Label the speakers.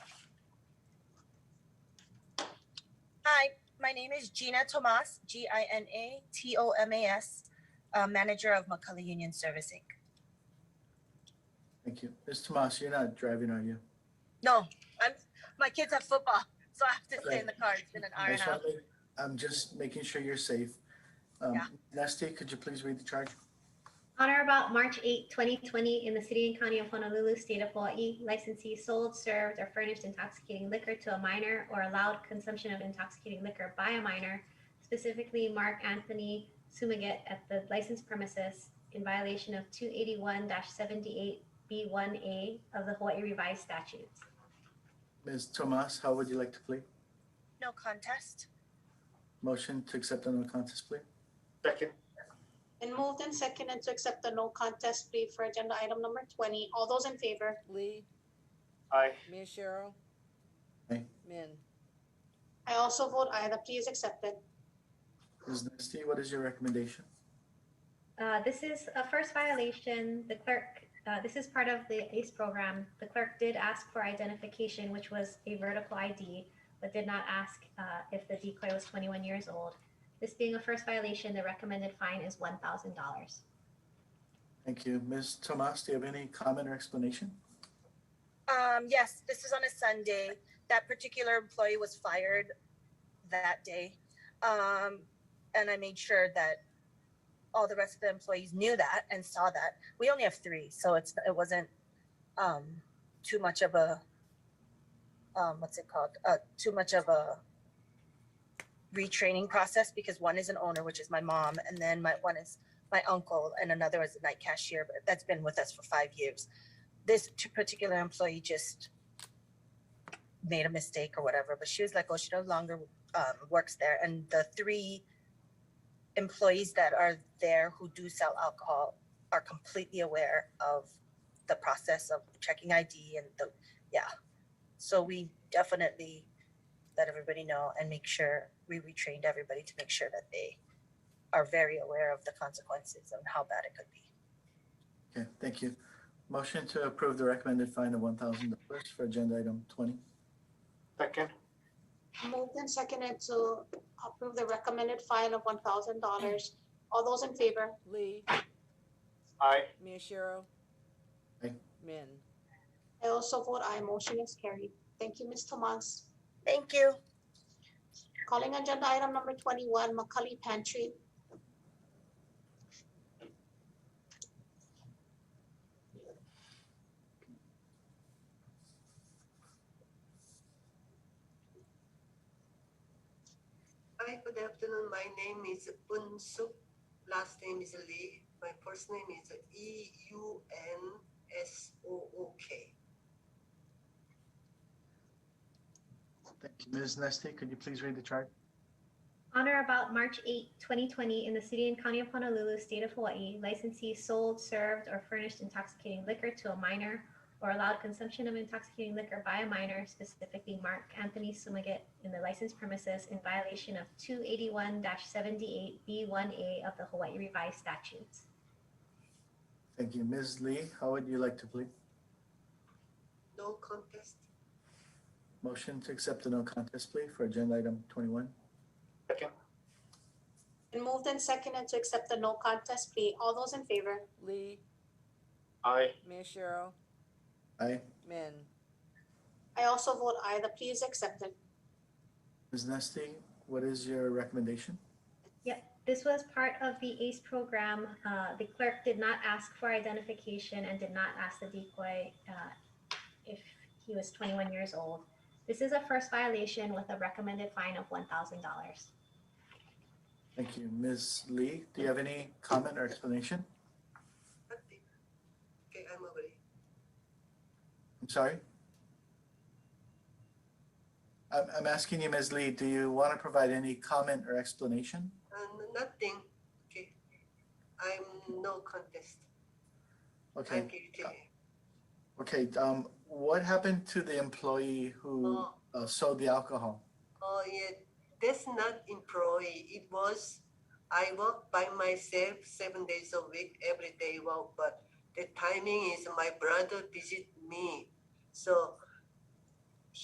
Speaker 1: My name is Gina Tomas, G I N A T O M A S, uh, manager of McCullough Union Servicing.
Speaker 2: Thank you. Ms. Tomas, you're not driving, are you?
Speaker 1: No, I'm, my kids have football, so I have to stay in the car. It's been an hour
Speaker 2: I
Speaker 1: and a
Speaker 2: just
Speaker 1: half.
Speaker 2: want to make- I'm just making sure you're safe. Um,
Speaker 1: Yeah.
Speaker 2: Nesty, could you please read the charge?
Speaker 3: On or about March 8, 2020, in the city and county of Honolulu, state of Hawaii, licensee sold, served, or furnished intoxicating liquor to a minor or allowed consumption of intoxicating liquor by a minor, specifically Mark Anthony Sumigat at the licensed premises in violation of 281-78B1A of the Hawaii Revised Statutes.
Speaker 2: Ms. Tomas, how would you like to plead?
Speaker 1: No contest.
Speaker 2: Motion to accept under contest plea?
Speaker 4: Second,
Speaker 5: And moved and seconded to accept the no contest plea for agenda item number twenty. All those in favor?
Speaker 6: Lee,
Speaker 4: aye.
Speaker 6: Mia Cheryl.
Speaker 2: Aye.
Speaker 6: Min,
Speaker 5: I also vote aye, the plea is accepted.
Speaker 2: Ms. Nesty, what is your recommendation?
Speaker 3: Uh, this is a first violation. The clerk, uh, this is part of the ACE program. The clerk did ask for identification, which was a vertical ID, but did not ask uh, if the decoy was 21 years old. This being a first violation, the recommended fine is $1,000.
Speaker 2: Thank you. Ms. Tomas, do you have any comment or explanation?
Speaker 1: Um, yes, this is on a Sunday. That particular employee was fired that day. Um, and I made sure that all the rest of the employees knew that and saw that. We only have three, so it's it wasn't um, too much of a um, what's it called? Uh, too much of a retraining process because one is an owner, which is my mom, and then my one is my uncle, and another is a night cashier. But that's been with us for five years this t- particular employee just made a mistake or whatever, but she was like, oh, she no longer um, works there. And the three employees that are there who do sell alcohol are completely aware of the process of checking ID and the, yeah. So we definitely let everybody know and make sure we retrained everybody to make sure that they are very aware of the consequences and how bad it could be.
Speaker 2: Okay, thank you. Motion to approve the recommended fine of one thousand dollars for agenda item twenty.
Speaker 4: Second,
Speaker 5: Moved and seconded to approve the recommended fine of one thousand dollars. All those in favor?
Speaker 6: Lee,
Speaker 4: aye.
Speaker 6: Mia Cheryl.
Speaker 2: Aye.
Speaker 6: Min,
Speaker 5: I also vote aye, motion is carried. Thank you, Ms. Tomas.
Speaker 1: Thank you.
Speaker 5: Calling agenda item number twenty-one, McCully Pantry.
Speaker 7: Hi, good afternoon. My name is Bun Suk. Last name is Lee. My first name is E U N S O O K.
Speaker 2: Thank you. Ms. Nesty, could you please read the charge?
Speaker 3: On or about March 8, 2020, in the city and county of Honolulu, state of Hawaii, licensee sold, served, or furnished intoxicating liquor to a minor or allowed consumption of intoxicating liquor by a minor, specifically Mark Anthony Sumigat, in the licensed premises in violation of 281-78B1A of the Hawaii Revised Statutes.
Speaker 2: Thank you. Ms. Lee, how would you like to plead?
Speaker 7: No contest.
Speaker 2: Motion to accept the no contest plea for agenda item twenty-one.
Speaker 4: Second,
Speaker 5: And moved and seconded to accept the no contest plea. All those in favor?
Speaker 6: Lee,
Speaker 4: aye.
Speaker 6: Mia Cheryl.
Speaker 2: Aye.
Speaker 6: Min,
Speaker 5: I also vote aye, the plea is accepted.
Speaker 2: Ms. Nesty, what is your recommendation?
Speaker 3: This was part of the ACE program. Uh, the clerk did not ask for identification and did not ask the decoy uh, if he was 21 years old. This is a first violation with a recommended fine of $1,000.
Speaker 2: Thank you. Ms. Lee, do you have any comment or explanation?
Speaker 7: Nothing. Okay, I'm agree.
Speaker 2: I'm sorry? I'm, I'm asking you, Ms. Lee, do you want to provide any comment or explanation?
Speaker 7: Uh, nothing. Okay. I'm no contest. I'm
Speaker 2: Okay,
Speaker 7: guilty.
Speaker 2: okay, um, what happened to the employee who
Speaker 7: Oh,
Speaker 2: uh, sold the alcohol?
Speaker 7: oh yeah. That's not employee. It was I work by myself seven days a week, every day work, but the timing is my brother visit me. So